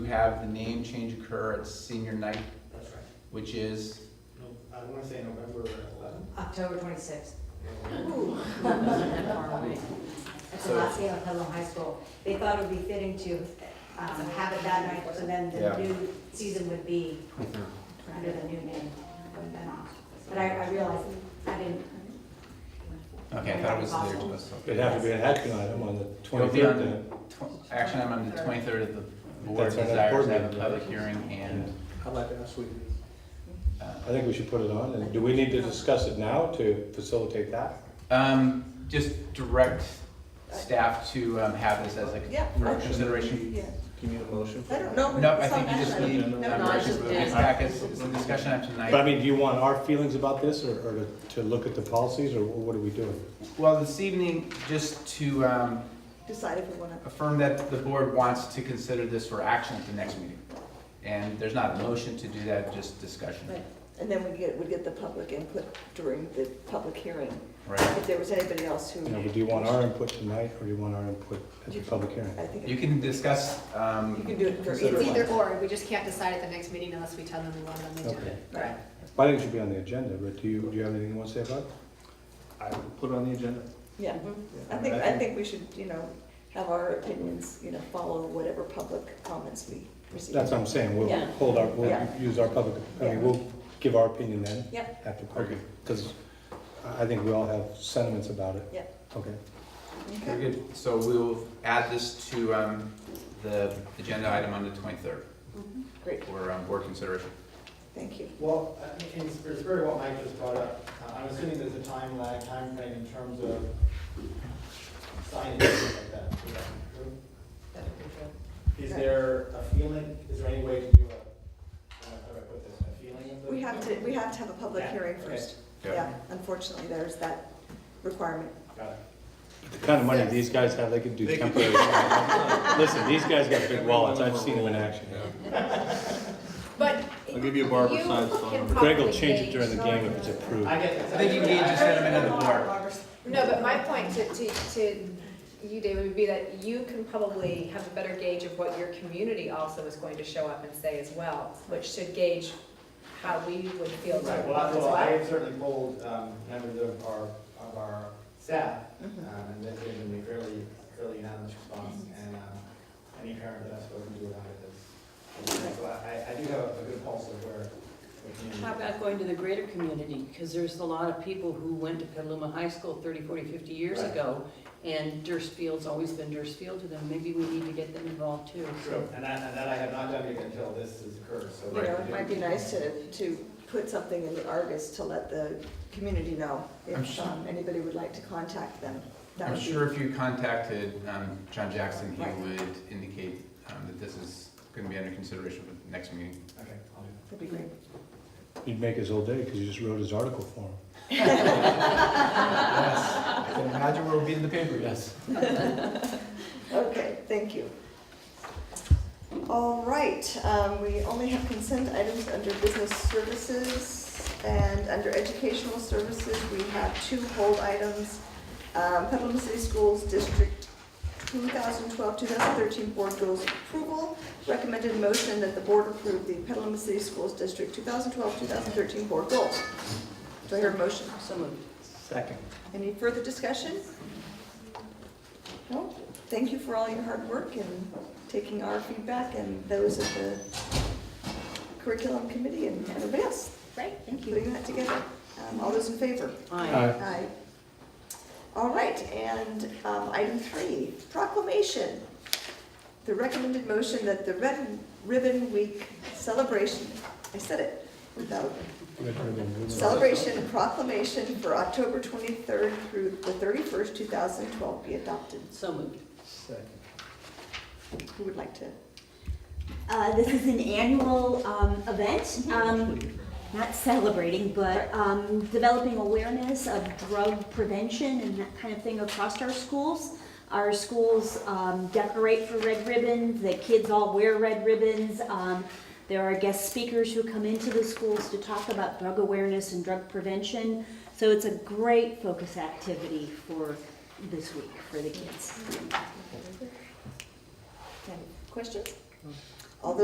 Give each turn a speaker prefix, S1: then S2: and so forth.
S1: have the name change occur at senior night,
S2: That's right.
S1: which is,
S2: No, I wanna say November eleventh.
S3: October twenty-sixth. That's the
S1: So-
S3: last day of Hudlow High School. They thought it would be fitting to um, have it that night, so then
S1: Yeah.
S3: the new season would be under the new name. But I, I realized, I didn't,
S1: okay, I thought it was later to us.
S4: It'd have to be an action item on the
S1: It'll be on
S4: twenty-third then.
S1: tw- Action item on the twenty-third of the board
S4: That's our next
S1: desires
S4: board
S1: to have a
S4: meeting.
S1: public hearing and,
S2: How about last week?
S1: uh,
S4: I think we should put it on, and do we need to discuss it now to facilitate that?
S1: um, just direct staff to, um, have this as a
S5: Yeah.
S1: for consideration.
S5: Yeah,
S2: Do you need a motion?
S5: I don't know.
S1: No, I
S5: It's not
S1: think you just
S5: that
S1: need, um,
S2: No,
S5: no, I
S1: directions,
S5: just
S1: but it's
S5: did.
S1: back, it's, it's a discussion item tonight.
S4: But I mean, do you want our feelings about this, or, or to, to look at the policies, or what are we doing?
S1: Well, this evening, just to um,
S5: Decide if we wanna,
S1: affirm that the board wants to consider this for action at the next meeting. And there's not a motion to do that, just discussion,
S5: and then we get, we get the public input during the public hearing.
S1: right?
S5: If there was anybody else who.
S4: You know, do you want our input tonight, or do you want our input at the public hearing?
S5: I think,
S1: You
S5: you
S1: can discuss,
S5: can
S1: um,
S5: do it for
S4: Consider
S5: either
S6: It's
S4: it.
S5: one.
S6: either or, we just can't decide at the next meeting unless we tell them we want it on the agenda.
S4: Okay.
S5: Right.
S4: Well, I think it should be on the agenda, but do you, do you have anything you want to say about it?
S2: I will put it on the agenda.
S5: Yeah,
S2: Mm-hmm.
S5: I think, I think we should, you know, have our opinions, you know, follow whatever public comments we receive.
S4: That's what I'm saying, we'll
S5: Yeah.
S4: hold our, we'll
S5: Yeah.
S4: use our public, I mean,
S5: Yeah.
S4: we'll give our opinion then.
S5: Yep.
S4: After public, because I I think we all have sentiments about it.
S5: Yep.
S4: Okay.
S1: very good. so we'll add this to um, the agenda item on the 23rd
S5: Great,
S1: for um, board consideration.
S5: thank you.
S7: Well, I think in spirit of what Mike just brought up, uh, I'm assuming there's a time lag, time frame in terms of signing things like that. Is that true? Is there a feeling, is there any way to do a, uh, how do I put this, a feeling of the?
S5: We have to, we have to have a public
S7: Yeah,
S5: hearing
S7: okay.
S5: first.
S1: Yeah.
S5: Yeah, unfortunately, there's that requirement.
S7: Got it.
S4: The kind of money these guys have, they could do
S2: They could-
S4: temporary. Listen, these guys got big wallets, I've seen them in action.
S6: But.
S2: I'll give you a Barbara
S6: you
S2: Sines phone
S6: can
S2: number.
S4: Greg will
S6: probably
S4: change it during the
S6: gauge
S4: game if it's
S6: your-
S4: approved.
S7: I get
S1: I think you need to sentiment of the board.
S6: No, but my point to, to, to you, David, would be that you can probably have a better gauge of what your community also is going to show up and say as well, which should gauge how we would feel to
S7: Right,
S6: as
S7: well, I- well, I
S6: well.
S7: have certainly polled um, members of our, of our staff, um,
S5: Mhm.
S7: and that's given me fairly, fairly unanimous response,
S5: Mm-hmm.
S7: and um, any parent that I've spoken to about it is, so I, I do have a good pulse of where. the community-
S8: How about going to the greater community? Because there's a lot of people who went to Petaluma High School 30, 40, 50 years
S7: Right.
S8: ago, and Durst Field's always been Durst Field to them. Maybe we need to get them involved too.
S7: True, and that, and that I have not done yet until this has occurred, so.
S5: You know, it might be nice to, to put something in the Argus to let the community know
S1: I'm
S5: if
S1: sure-
S5: um, anybody would like to contact them. That
S1: I'm
S5: would be-
S1: sure if you contacted um, John Jackson,
S5: Right.
S1: he would indicate um, that this is going to be under consideration for the next meeting.
S7: Okay, I'll do that.
S5: That'd be great.
S4: You'd make his whole day, because you just wrote his article for him.
S1: Yes, I can imagine where we'll be in the paper, yes.
S5: Okay, thank you. All right, um, we only have consent items under business services and under educational services, we have two hold items. Um, Petaluma City Schools District 2012, 2013 Board Goals Approval. Recommended motion that the board approve the Petaluma City Schools District 2012, 2013 Board Goals. Do I hear a motion?
S8: So moved.
S2: Second.
S5: Any further discussion? No? Thank you for all your hard work and taking our feedback and those of the curriculum committee and everybody else.
S6: Right.
S5: Thank you. Putting that together. Um, All those in favor?
S8: Aye.
S5: Aye. All right, and um, item three, proclamation. The recommended motion that the Red Ribbon Week celebration, I said it without Celebration proclamation for October 23rd through the 31st, 2012 be adopted.
S8: So moved.
S2: Second.
S5: Who would like to?
S9: Uh, this is an annual um, event, um, not celebrating, but um, developing awareness of drug prevention and that kind of thing across our schools. Our schools um, decorate for red ribbons, the kids all wear red ribbons. Um, there are guest speakers who come into the schools to talk about drug awareness and drug prevention. So it's a great focus activity for this week for the kids.
S5: Questions?